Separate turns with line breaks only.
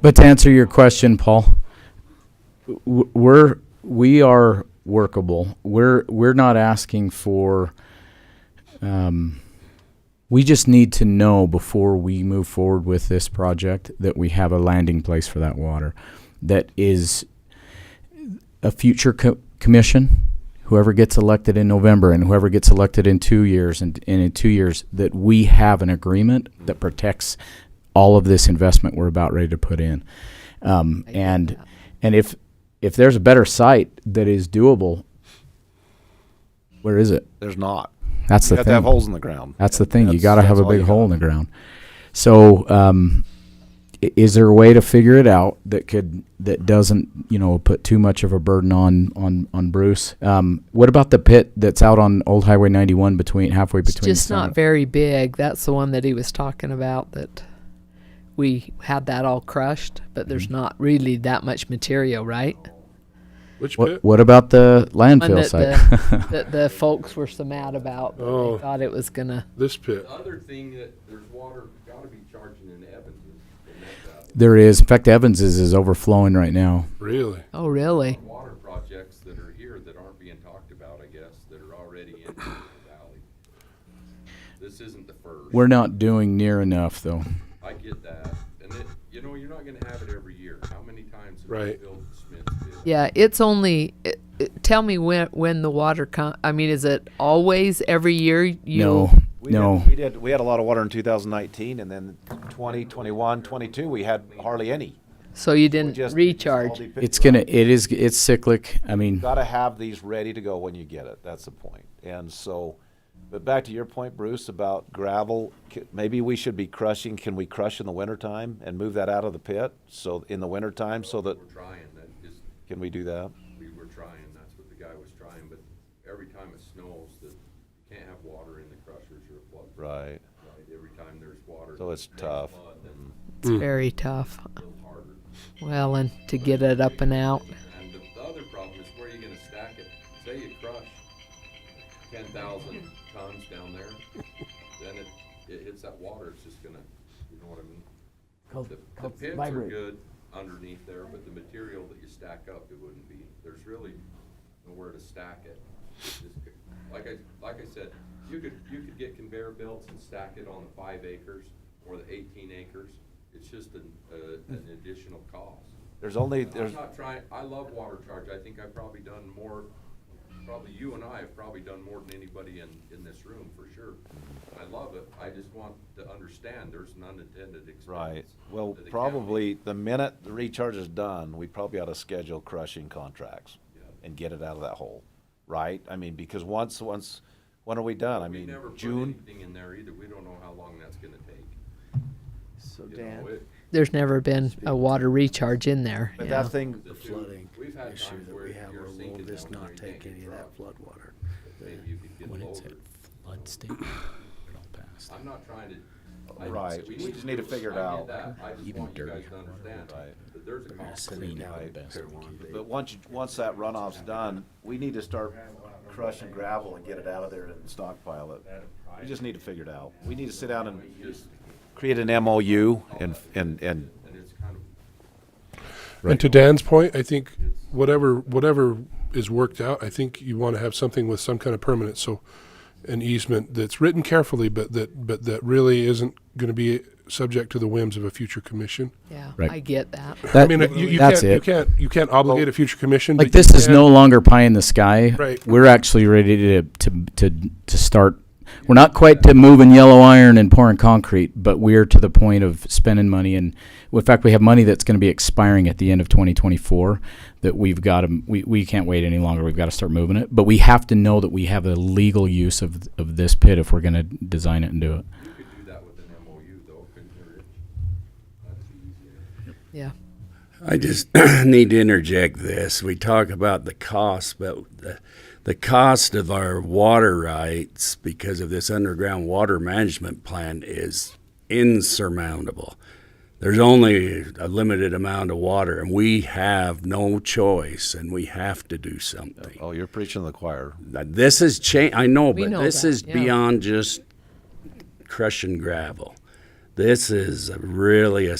But to answer your question, Paul, w- we're we are workable. We're we're not asking for. Um, we just need to know before we move forward with this project that we have a landing place for that water, that is a future co- commission, whoever gets elected in November and whoever gets elected in two years and, and in two years, that we have an agreement that protects all of this investment we're about ready to put in. Um,
I get
and
that.
and if if there's a better site that is doable, where is it?
There's not.
That's the
You have
thing.
to have holes in the ground.
That's the thing. you
That's-
got to have
that's
a
all
big
you
hole
got.
in the ground. So, um, i- is there a way to figure it out that could that doesn't you know put too much of a burden on on on Bruce? Um, what about the pit that's out on Old Highway 91 between halfway
It's
between?
just not
Summit-
very big. That's the one that he was talking about that we had that all crushed, but
Mm-hmm.
there's not really that much material, right?
Which
What
pit?
What about the
One
landfill
that
site?
the, that the folks were so mad about. that
Oh.
They thought it was gonna.
This pit.
The other thing that there's water, gotta be charging in Evans is the next out.
there is. In fact, Evans's is overflowing right now.
Really?
Oh, really?
Water projects that are here that aren't being talked about, I guess, that are already in the valley. This isn't the first.
We're not doing near enough though.
I get that. And it, you know, you're not gonna have it every year. How many times have we
Right.
built Smithfield?
Yeah, it's only. It, it, tell me when when the water com I mean, is it always every year? You
no,
We
no.
Did, we did. We had a lot of water in 2019, and then 20, 21, 22, we had hardly any.
So you
We
didn't
just- we just all
recharge.
depend-
It's gonna. It is. It's cyclic. I mean,
Got to have these ready to go when you get it. That's the point. And so, but back to your point, Bruce, about gravel. c- Maybe we should be crushing. Can we crush in the wintertime and move that out of the pit? So in the wintertime, so that
We're trying, that is,
can we do that?
we were trying, that's what the guy was trying, but every time it snows, that you can't have water in the crushers or it floods.
Right.
Right, Every time there's water.
So it's
makes
tough.
mud, then
It's very tough.
it's a little harder.
Well, and to get it up and out.
And the, the other problem is where are you gonna stack it? Say you crush ten thousand tons down there, then it, it hits that water, it's just gonna, you know what I mean? The, the pits are good underneath there, but the material that you stack up, it wouldn't be, there's really nowhere to stack it. It's just c- Like I, like I said, you could, you could get conveyor belts and stack it on the five acres or the eighteen acres. It's just an, uh, an additional cost.
There's only there's
I'm not trying, I love water charge, I think I've probably done more, probably you and I have probably done more than anybody in, in this room, for sure. I love it, I just want to understand there's an unintended expense.
Right. Well,
to the county.
probably the minute the recharge is done, we probably ought to schedule crushing contracts
Yeah.
and get it out of that hole, right? I mean, because once, once, when are we done? I
We
mean,
never put
June?
anything in there either, we don't know how long that's gonna take.
So
You know,
Dan,
it-
There's never been a water recharge in there.
But
you
that
know.
thing,
the two-
flooding
We've had
issue
times
that
where
we have,
you're
or will
sinking
this
down there,
not
you
take
can't
any
get
of that
up.
flood water?
Maybe you could get
when it's
lower.
at flood state?
I'm not trying to. I-
Right, we just need to figure it
I get
out.
that. I just
Even
want you guys
dirtier
to understand
Right.
that there's a cost.
Clean
out
out
the
the best we can do.
but once, you- once that runoff's done, we need to start crushing gravel and get it out of there and stockpile it. We just need to figure it out. We need to sit down and create an MOU and, and, and
And it's kind of
And to Dan's point, I think whatever whatever is worked out, I think you want to have something with some kind of permanent, so an easement that's written carefully, but that but that really isn't going to be subject to the whims of a future commission.
Yeah,
Right.
I get that.
that,
I mean, you, you
that's
can't
it.
you can't you can't obligate a future commission.
Like
but you
this is
can-
no longer pie in the sky.
Right.
We're actually ready to to to to start. We're not quite to moving yellow iron and pouring concrete, but we're to the point of spending money. And in fact, we have money that's going to be expiring at the end of 2024 that we've got to, we, we can't wait any longer. We've got to start moving it. But we have to know that we have a legal use of, of this pit if we're going to design it and do it.
You could do that with an MOU though, couldn't you, Rich? That'd be easier.
Yeah.
I just need to interject this. We talk about the cost, but the, the cost of our water rights because of this underground water management plan is insurmountable. There's only a limited amount of water, and we have no choice, and we have to do something.
Oh, you're preaching to the choir.
Now, This is change. I know,
We
but
know
this
that,
is
yeah.
beyond just crushing gravel. This is a really a